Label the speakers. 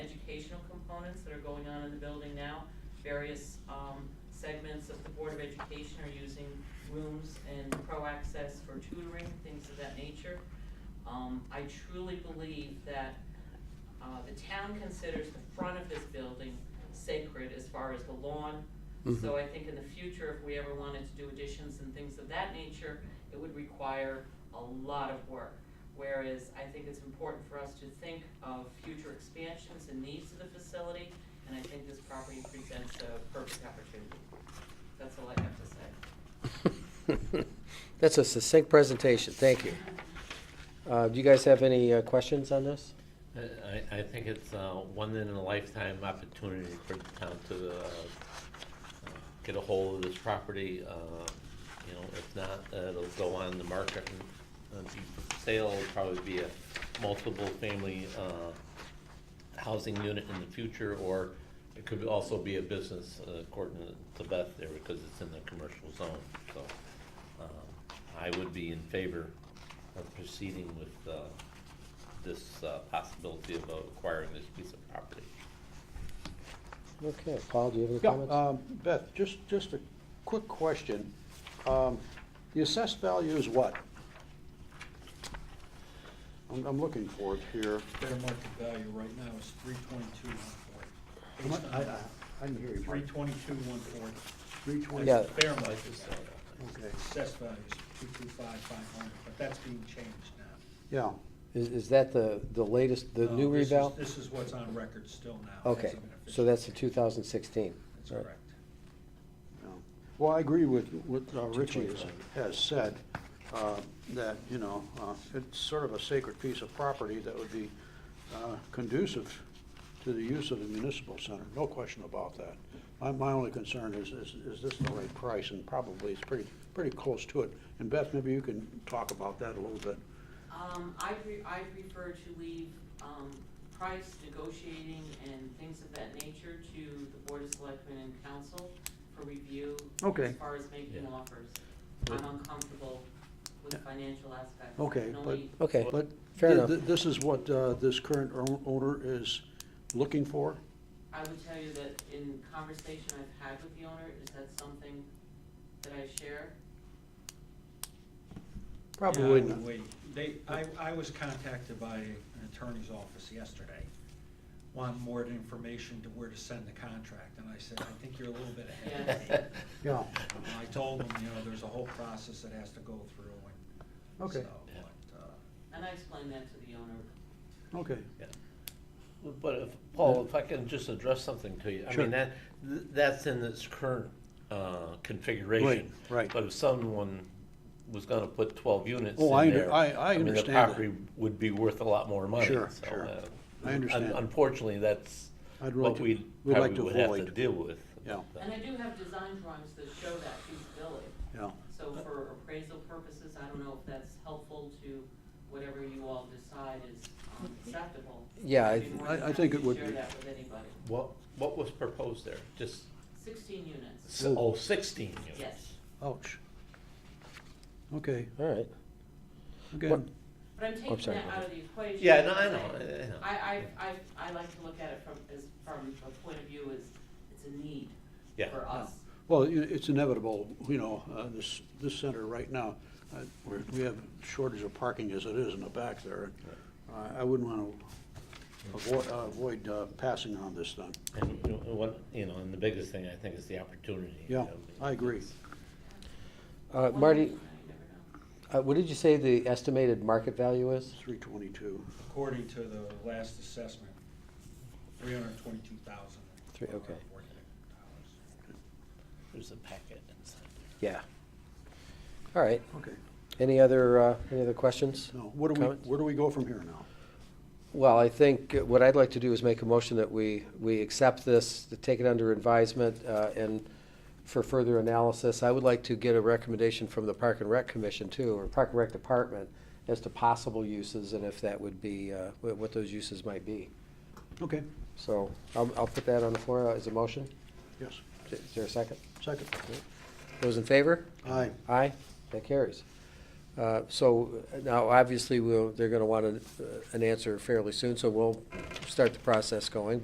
Speaker 1: components that are going on in the building now. Various um, segments of the Board of Education are using rooms and pro access for tutoring, things of that nature. Um, I truly believe that uh, the town considers the front of this building sacred as far as the lawn.
Speaker 2: Mm-hmm.
Speaker 1: So I think in the future, if we ever wanted to do additions and things of that nature, it would require a lot of work. Whereas I think it's important for us to think of future expansions and needs of the facility, and I think this property presents a perfect opportunity. That's all I have to say.
Speaker 2: That's a succinct presentation, thank you. Uh, Do you guys have any uh, questions on this?
Speaker 3: I, I think it's uh, one in a lifetime opportunity for the town to uh, get a hold of this property. uh, You know, if not, uh, it'll go on the market and uh, be for sale, It'll probably be a multiple family uh, housing unit in the future, or it could also be a business uh, according to Beth there, because it's in the commercial zone, so. um, I would be in favor of proceeding with uh, this uh, possibility of acquiring this piece of property.
Speaker 2: Okay, Paul, do you have any
Speaker 4: Yeah,
Speaker 2: comments?
Speaker 5: uh,
Speaker 4: um, Beth, just, just a quick question. Um, The assessed value is what? I'm, I'm looking for it here.
Speaker 5: Fair market value right now is three twenty-two, one forty.
Speaker 4: I, didn't hear you.
Speaker 5: Three twenty-two, one forty.
Speaker 4: Three twenty.
Speaker 2: Yeah.
Speaker 5: That's the fair market value.
Speaker 4: Okay,
Speaker 5: Assessed value is two two five, five hundred, but that's being changed now.
Speaker 4: yeah,
Speaker 2: Is is that the the latest, the
Speaker 5: No,
Speaker 2: new
Speaker 5: Uh, this is-
Speaker 2: revale?
Speaker 5: This is what's on record still now.
Speaker 2: Okay,
Speaker 5: hasn't been
Speaker 2: so
Speaker 5: officially-
Speaker 2: that's the 2016.
Speaker 5: That's
Speaker 2: All right.
Speaker 5: correct.
Speaker 4: yeah. Well, I agree with what uh, Richie has, has said, uh, that, you know, uh, it's sort of a sacred piece of property that would be uh, conducive to the use of the municipal center, no question about that. My, my only concern is, is, is this the right price, and probably it's pretty, pretty close to it. And Beth, maybe you can talk about that a little bit.
Speaker 1: Um, I pre- I prefer to leave, um, price negotiating and things of that nature to the Board of Selectmen and Council for review.
Speaker 4: Okay.
Speaker 1: As far as making
Speaker 3: Yeah.
Speaker 1: offers.
Speaker 3: But-
Speaker 1: I'm uncomfortable with financial aspects.
Speaker 4: Okay,
Speaker 1: I can
Speaker 4: but-
Speaker 1: only-
Speaker 2: Okay,
Speaker 4: But
Speaker 2: fair
Speaker 4: thi-
Speaker 2: enough.
Speaker 4: thi- This is what uh, this current o- owner is looking for?
Speaker 1: I would tell you that in conversation I've had with the owner, is that something that I share?
Speaker 5: Yeah, I
Speaker 4: Probably
Speaker 5: would
Speaker 4: not.
Speaker 5: wait. They, I, I was contacted by an attorney's office yesterday, wanting more information to where to send the contract, and I said, I think you're a little bit ahead of me.
Speaker 4: Yeah,
Speaker 5: And I told them, you know, there's a whole process that has to go through and so,
Speaker 4: Okay.
Speaker 5: but, uh,
Speaker 1: And I explained that to the owner.
Speaker 4: okay.
Speaker 3: Yeah. But if, Paul, if I can just address something to you, I
Speaker 4: Sure.
Speaker 3: mean, that, th- that's in its current, uh, configuration.
Speaker 4: Right, right.
Speaker 3: But if someone was gonna put twelve units
Speaker 4: Oh, I
Speaker 3: in
Speaker 4: under-
Speaker 3: there.
Speaker 4: I- I
Speaker 3: mean,
Speaker 4: understand
Speaker 3: The
Speaker 4: that.
Speaker 3: property would be worth a lot more money.
Speaker 4: Sure,
Speaker 3: so,
Speaker 4: sure.
Speaker 3: uh,
Speaker 4: I
Speaker 3: un-
Speaker 4: understand.
Speaker 3: Unfortunately, that's
Speaker 4: I'd like
Speaker 3: what
Speaker 4: to-
Speaker 3: we
Speaker 4: we'd like
Speaker 3: probably
Speaker 4: to
Speaker 3: would have to
Speaker 4: avoid.
Speaker 3: deal with. uh,
Speaker 4: Yeah.
Speaker 1: And I do have design drawings that show that feasibility.
Speaker 4: Yeah,
Speaker 1: So for appraisal purposes, I don't know if that's helpful to whatever you all decide is um, acceptable.
Speaker 2: Yeah, I-
Speaker 1: I'd be more than
Speaker 4: I- I think
Speaker 1: happy
Speaker 4: it would
Speaker 1: to
Speaker 4: be.
Speaker 1: Share that with anybody.
Speaker 3: What, what was proposed there? Just,
Speaker 1: Sixteen units,
Speaker 3: s- oh, sixteen units?
Speaker 1: yes.
Speaker 4: ouch. Okay,
Speaker 2: All right.
Speaker 4: again,
Speaker 1: But I'm taking
Speaker 2: Oh, sorry,
Speaker 1: that
Speaker 2: go
Speaker 1: out of the equation.
Speaker 3: Yeah, no, I
Speaker 1: and
Speaker 3: know,
Speaker 1: saying-
Speaker 3: I- I know.
Speaker 1: I, I, I, I like to look at it from, as, from a point of view as, it's a need
Speaker 3: Yeah.
Speaker 1: for us.
Speaker 4: well, you know, it's inevitable, you know, uh, this, this center right now, uh, we're- we have shortage of parking as it is in the back there. I I wouldn't want to avoid, avoid uh, passing on this thing.
Speaker 3: And, you know, what, you know, and the biggest thing I think is the opportunity. you
Speaker 4: Yeah,
Speaker 3: know,
Speaker 4: I agree.
Speaker 2: Uh,
Speaker 1: One
Speaker 2: Marty,
Speaker 1: reason, I never know.
Speaker 2: uh, what did you say the estimated market value is?
Speaker 4: Three twenty-two,
Speaker 5: According to the last assessment, three hundred and twenty-two thousand.
Speaker 2: Three, okay.
Speaker 3: There's a packet inside there.
Speaker 2: Yeah. All right,
Speaker 4: okay.
Speaker 2: any other, uh, any other questions?
Speaker 4: Now, where do we,
Speaker 2: Comments?
Speaker 4: where do we go from here now?
Speaker 2: Well, I think what I'd like to do is make a motion that we, we accept this, to take it under advisement, uh, and for further analysis. I would like to get a recommendation from the Park and Rec Commission too, or Park and Rec Department, as to possible uses and if that would be, uh, wh- what those uses might be.
Speaker 4: Okay,
Speaker 2: So I'll, I'll put that on the floor as a motion.
Speaker 4: yes,
Speaker 2: Is there a second?
Speaker 4: second.
Speaker 2: Those in favor?
Speaker 4: Aye,
Speaker 2: Aye, that carries. Uh, So uh, now, obviously, we'll, they're going to want an, an answer fairly soon, so we'll start the process going.